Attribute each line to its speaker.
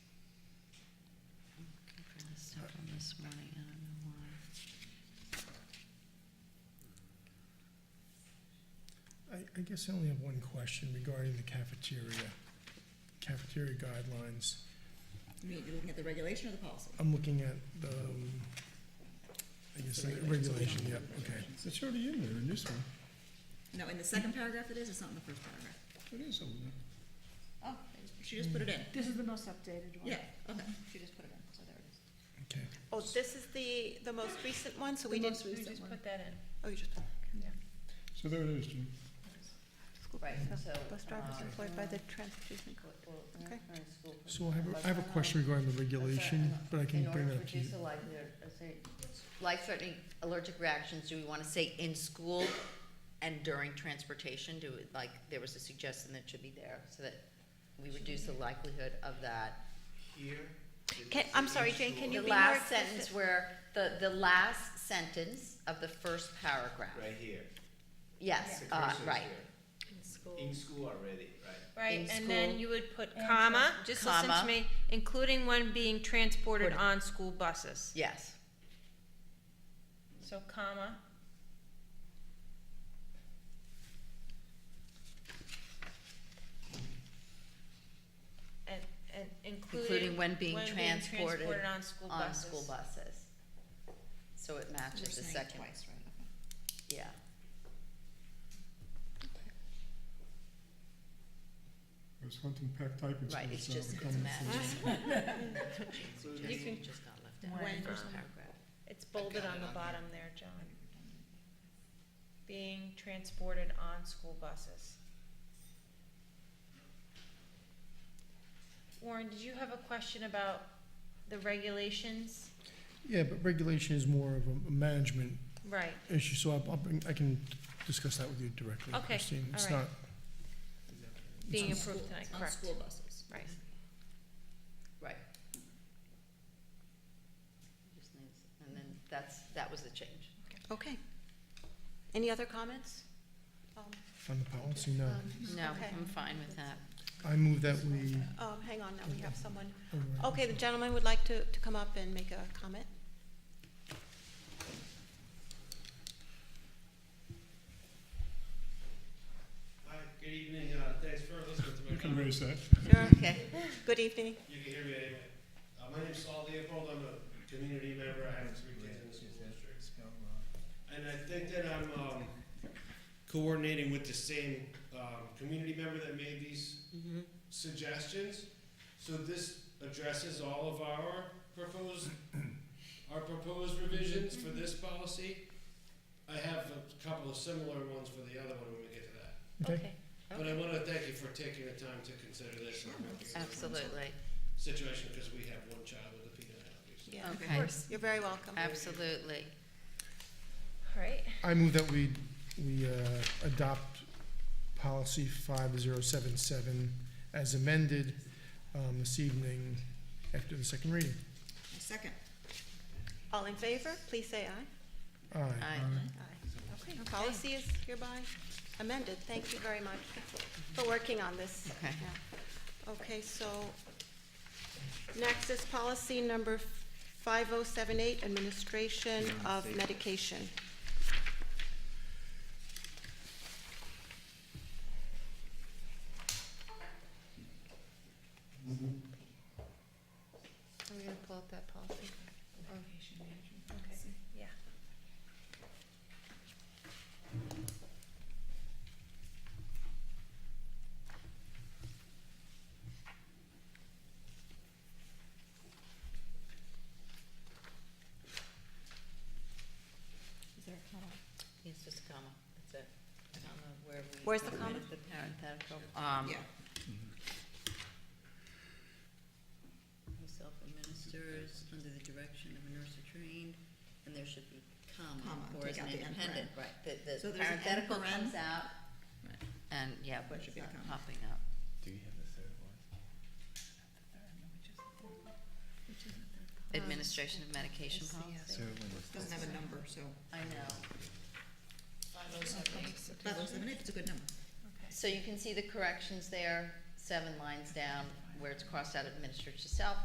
Speaker 1: this morning, I don't know why.
Speaker 2: I, I guess I only have one question regarding the cafeteria, cafeteria guidelines.
Speaker 3: You mean, you're looking at the regulation or the policy?
Speaker 2: I'm looking at the, um, I guess, the regulation, yeah, okay. It's already in there in this one.
Speaker 3: No, in the second paragraph it is, it's not in the first paragraph.
Speaker 2: It is over there.
Speaker 3: Oh, she just put it in.
Speaker 4: This is the most updated one.
Speaker 3: Yeah, okay, she just put it in, so there it is.
Speaker 2: Okay.
Speaker 5: Oh, this is the, the most recent one, so
Speaker 4: The
Speaker 5: we didn't.
Speaker 4: most recent one.
Speaker 5: that in. Oh, you just,
Speaker 2: So there it is, Jim.
Speaker 1: Right, so.
Speaker 5: bus drivers
Speaker 6: uh,
Speaker 5: employed by the transportation. co- Okay.
Speaker 2: So I have, a I have a question regarding the regulation, but I can
Speaker 6: In order
Speaker 2: bring
Speaker 6: to
Speaker 2: that up to you.
Speaker 6: reduce the life, uh, say, life-threatening allergic reactions, do we wanna say in school and during transportation? Do it, like, there was a suggestion that should be there, so that we reduce the likelihood of that.
Speaker 7: Here. it
Speaker 5: Can-
Speaker 7: is
Speaker 5: I'm
Speaker 7: in
Speaker 5: sorry, Jane, can
Speaker 7: short-
Speaker 5: you
Speaker 6: The
Speaker 5: be more
Speaker 6: last
Speaker 5: explicit?
Speaker 6: sentence where, the, the last sentence of the first paragraph.
Speaker 7: Right here.
Speaker 6: Yes,
Speaker 7: The
Speaker 6: uh,
Speaker 7: cursor's
Speaker 6: right.
Speaker 7: here. In school already, right?
Speaker 8: Right,
Speaker 6: in
Speaker 8: and
Speaker 6: school.
Speaker 8: then you would put comma, just listen
Speaker 6: Comma.
Speaker 8: to me, including one being transported
Speaker 6: Transported.
Speaker 8: on school buses.
Speaker 6: Yes,
Speaker 8: So comma, and, and including.
Speaker 6: including when being transported
Speaker 8: transported on school
Speaker 6: on
Speaker 8: buses.
Speaker 6: school buses. So it
Speaker 3: We're
Speaker 6: matches the
Speaker 3: saying it
Speaker 6: second,
Speaker 3: twice, right, okay.
Speaker 6: yeah.
Speaker 2: There's hunting pack typing
Speaker 6: Right, it's just, it's a match.
Speaker 7: Including-
Speaker 6: just got left
Speaker 4: out.
Speaker 3: When-
Speaker 6: First paragraph.
Speaker 8: It's bolded
Speaker 7: got
Speaker 8: on
Speaker 7: it
Speaker 8: the
Speaker 7: on
Speaker 8: bottom there, John. Being transported on school buses. Warren, did you have a question about the regulations?
Speaker 2: Yeah, but regulation is more of a- a management
Speaker 8: Right,
Speaker 2: issue, so I'll, I'll bring, I can discuss that with you directly,
Speaker 8: Okay,
Speaker 2: Christine. It's
Speaker 8: all right.
Speaker 2: not,
Speaker 8: being
Speaker 3: On school-
Speaker 8: approved tonight,
Speaker 3: On
Speaker 8: correct,
Speaker 3: school buses.
Speaker 8: right.
Speaker 6: Right. Just needs- And then that's, that was the change.
Speaker 5: Okay. Any other comments? Um,
Speaker 2: on the policy,
Speaker 6: Um,
Speaker 2: no.
Speaker 6: No,
Speaker 5: Okay.
Speaker 6: I'm fine with that.
Speaker 2: I move that we,
Speaker 5: Um, hang on, now we have someone. Okay, the gentleman would like to, to come up and make a comment.
Speaker 9: Hi, good evening, uh, thanks for listening to me.
Speaker 2: raise that.
Speaker 5: Sure.
Speaker 6: Okay.
Speaker 5: Good evening.
Speaker 9: You can hear me anyway. Uh, my name's Saul Leopold, I'm a community member, I have three kids in the school district. And I think that I'm, um, coordinating with the same, um, community member that made these suggestions. So this addresses all of our proposed, our proposed revisions for this policy. I have a couple of similar ones for the other one when we get to that.
Speaker 2: Okay,
Speaker 9: But I want to thank you for taking the time to consider this and working on this
Speaker 6: Absolutely.
Speaker 9: situation because we have one child with a peanut allergy.
Speaker 5: Yeah,
Speaker 6: Okay.
Speaker 5: You're very welcome.
Speaker 6: Absolutely.
Speaker 8: All right,
Speaker 2: I move that we, we, uh, adopt policy five zero seven seven as amended, um, this evening after the second reading.
Speaker 3: A second.
Speaker 5: All in favor, please say
Speaker 2: Aye.
Speaker 5: aye.
Speaker 6: I-
Speaker 5: Aye. Okay, policy is hereby amended. Thank you very much for working on this.
Speaker 6: Okay.
Speaker 5: Yeah. Okay, so next is policy number 5078, administration of medication.
Speaker 8: are we gonna pull up that policy? Okay, yeah.
Speaker 3: Is there a comma?
Speaker 6: It's just a comma, that's it. Comma where we.
Speaker 5: Where's the comma?
Speaker 6: The parenthetical. Um,
Speaker 3: Yeah.
Speaker 6: who self-administers under the direction of a nurse or trained, and there should be comma,
Speaker 3: Comma,
Speaker 6: or
Speaker 3: take
Speaker 6: is an
Speaker 3: out the end
Speaker 6: independent, right, the,
Speaker 3: So
Speaker 6: the
Speaker 3: there's an end
Speaker 6: parenthetical
Speaker 3: paren.
Speaker 6: comes out.
Speaker 3: Right.
Speaker 6: And, yeah,
Speaker 3: There
Speaker 6: but it's
Speaker 3: should be a
Speaker 6: not
Speaker 3: comma.
Speaker 6: popping up.
Speaker 7: Do you have the third one?
Speaker 6: Administration of medication policy.
Speaker 3: Doesn't have a number, so.
Speaker 6: I know.
Speaker 3: Five oh seven eight, it's a good number.
Speaker 6: So you can see the corrections there, seven lines down, where it's crossed out administered to self,